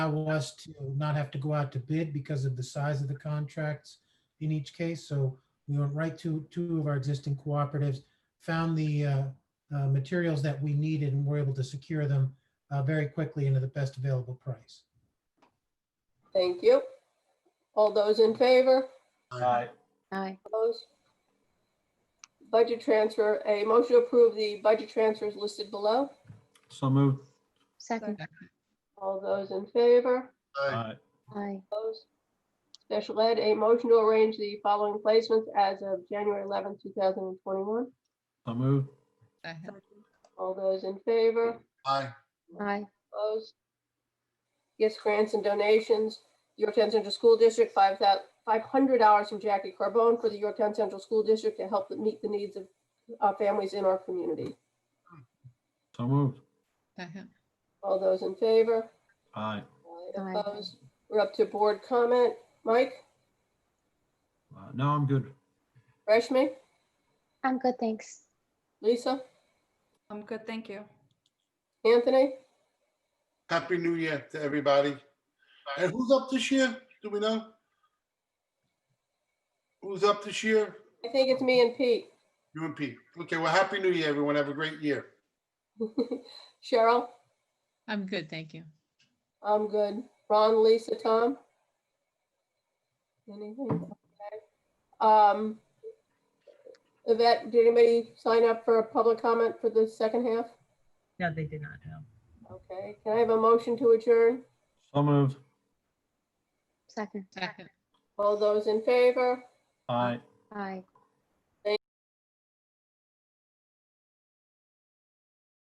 allow us to not have to go out to bid because of the size of the contracts in each case. So we went right to two of our existing cooperatives, found the uh, uh, materials that we needed and were able to secure them uh, very quickly and at the best available price. Thank you. All those in favor? Aye. Aye. Opposed? Budget transfer, a motion to approve the budget transfers listed below. So moved. Second. All those in favor? Aye. Aye. Opposed? Special ed, a motion to arrange the following placements as of January 11th, 2021. So moved. Second. All those in favor? Aye. Aye. Opposed? Gifts, grants, and donations. Yorktown Central School District, five thou- $500 from Jackie Carbone for the Yorktown Central School District to help them meet the needs of uh, families in our community. So moved. Second. All those in favor? Aye. Aye, Aye. Opposed? We're up to board comment. Mike, Uh, No, I'm good. Rashmi, I'm good, thanks. Lisa, I'm good, thank you. Anthony? Happy New Year to everybody. And who's up this year? Do we know? Who's up this year? I think it's me and Pete. You and Pete. Okay, well, Happy New Year, everyone. Have a great year. Cheryl, I'm good, thank you. I'm good. Ron, Lisa, Tom? Anything? Okay. Um, Yvette, did anybody sign up for a public comment for the second half? No, they did not, no. Okay, can I have a motion to adjourn? So moved. Second. Second. All those in favor? Aye. Aye.